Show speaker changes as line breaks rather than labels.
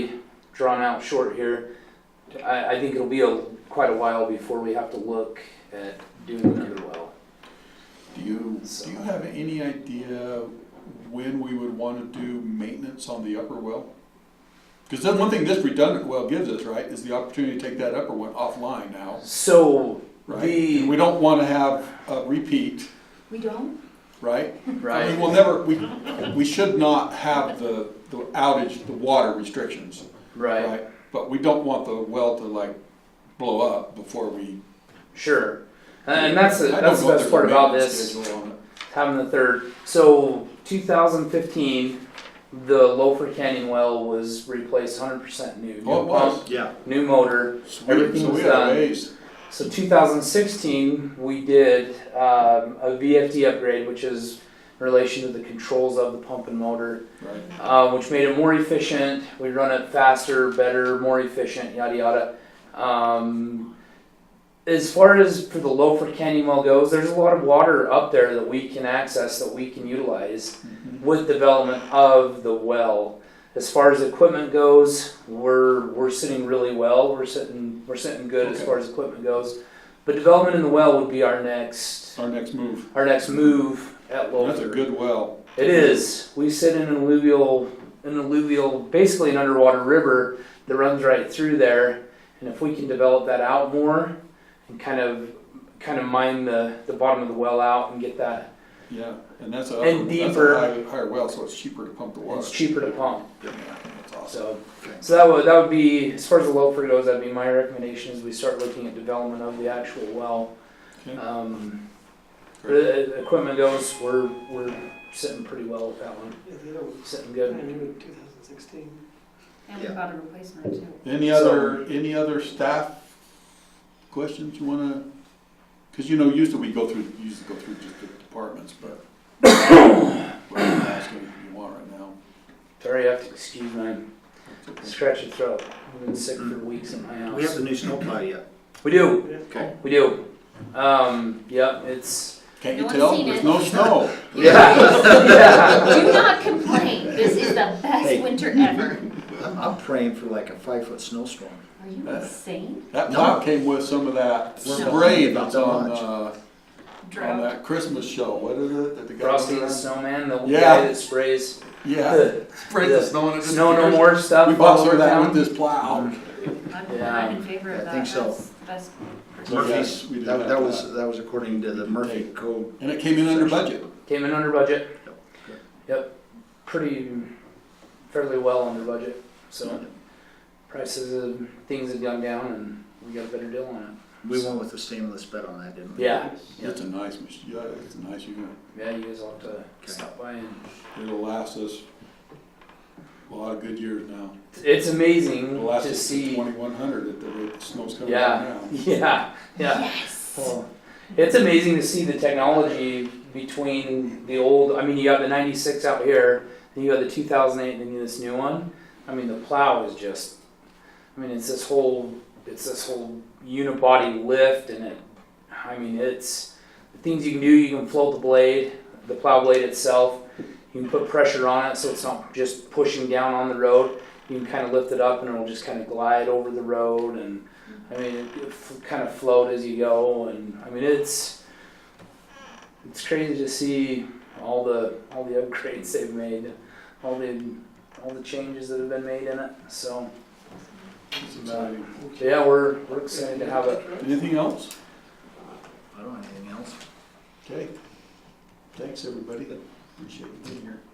drawn out short here. I, I think it'll be a, quite a while before we have to look at doing another well.
Do you, do you have any idea when we would want to do maintenance on the upper well? Because then one thing this redundant well gives us, right, is the opportunity to take that upper one offline now,
So
right?
The-
And we don't want to have a repeat,
We don't?
right? I mean, we'll never, we, we should not have the, the outage, the water restrictions,
right,
right? But we don't want the well to like blow up before we.
sure, and that's the,
I don't
that's the
know
best
if there's a
part about
maintenance
this.
schedule on it.
having the third. So 2015, the Loafer Canyon well was replaced 100% new. New
Oh, it was.
pump,
Yeah,
new motor.
Sweet,
Everything
so
was
we had
done.
a ways.
So 2016, we did um, a VFD upgrade, which is in relation to the controls of the pump and motor,
Right.
uh, which made it more efficient. We run it faster, better, more efficient, yada yada. Um, as far as for the Loafer Canyon well goes, there's a lot of water up there that we can access, that we can utilize.
Mm-hmm.
with development of the well. As far as equipment goes, we're we're sitting really well. We're sitting we're sitting good as
Okay.
far as equipment goes. But development in the well would be our next
Our next move.
our next move at Lofer.
That's a good well.
It is. We sit in an alluvial, an alluvial, basically an underwater river that runs right through there. And if we can develop that out more and kind of, kind of mine the, the bottom of the well out and get that,
Yeah, and that's a
And
that's
deeper.
a high, higher well, so it's cheaper to pump the water.
it's cheaper to pump.
Yeah, that's awesome.
So, so that would that would be as far as the loafer goes. That'd be my recommendation is we start looking at development of the actual well.
Okay.
Um, the equipment goes, we're we're sitting pretty well with that one.
Yeah, the other one
Sitting
was
good.
brand new in 2016.
And we
Yeah.
got a replacement too.
Any other any other staff questions you want to? Because you know, usually we go through we usually go through just the departments, but we're not asking if you want right now.
Sorry, I have to excuse my
It's okay.
scratchy throat. I've been sick for weeks in my house.
we have the new snowplow yet.
We do.
Okay.
We do. Um, yep. It's
Can't
No
you
one's
tell?
seen
There's
it.
no snow.
yeah.
Do not complain. This is the best
Hey.
winter ever.
I'm, I'm praying for like a five foot snowstorm.
Are you insane?
That
No.
plow came with some of that
We're
spray
complaining about
that's
so
on
much.
uh, on that Christmas show. What is it that the guy?
Frosty the Snowman, the
Yeah.
guy that sprays
Yeah,
the
spray
the
the snow and it just
snow no
appears.
more stuff.
We
all
bought some
over
of that
town.
with this plow.
I'm,
Yeah.
I'm in favor of
I
that.
think so.
That's the best.
Murphy's,
Yes, we did
that,
have
that was, that was according to the Murphy code.
And it came in under budget.
Came in under budget.
Yep.
Yep, pretty, fairly well under budget, so prices of things have gone down and we got a better deal on
We went with the stainless bed on that, didn't
it.
we?
Yeah,
It's a nice machine. Yeah, it's a nice unit.
yeah, you guys will have to stop by and,
It'll last us a lot of good years now.
it's amazing
It'll last
to
us to
see.
twenty-one hundred at the rate the snow's coming
Yeah,
down now.
yeah, yeah.
Yes.
Well, It's amazing to see the technology between the old, I mean, you have the ninety-six out here, then you have the two thousand eight, and then you have this new one. I mean, the plow is just, I mean, it's this whole, it's this whole unibody lift and it, I mean, it's, the things you can do, you can float the blade, the plow blade itself. You can put pressure on it so it's not just pushing down on the road. You can kind of lift it up and it'll just kind of glide over the road and I mean, it, it f- kind of float as you go, and I mean, it's it's crazy to see all the all the upgrades they've made, all the all the changes that have been made in it. So
It's amazing.
so yeah, we're we're excited to have it.
Anything else?
I don't have anything else.
Okay. Thanks, everybody. Appreciate you being here.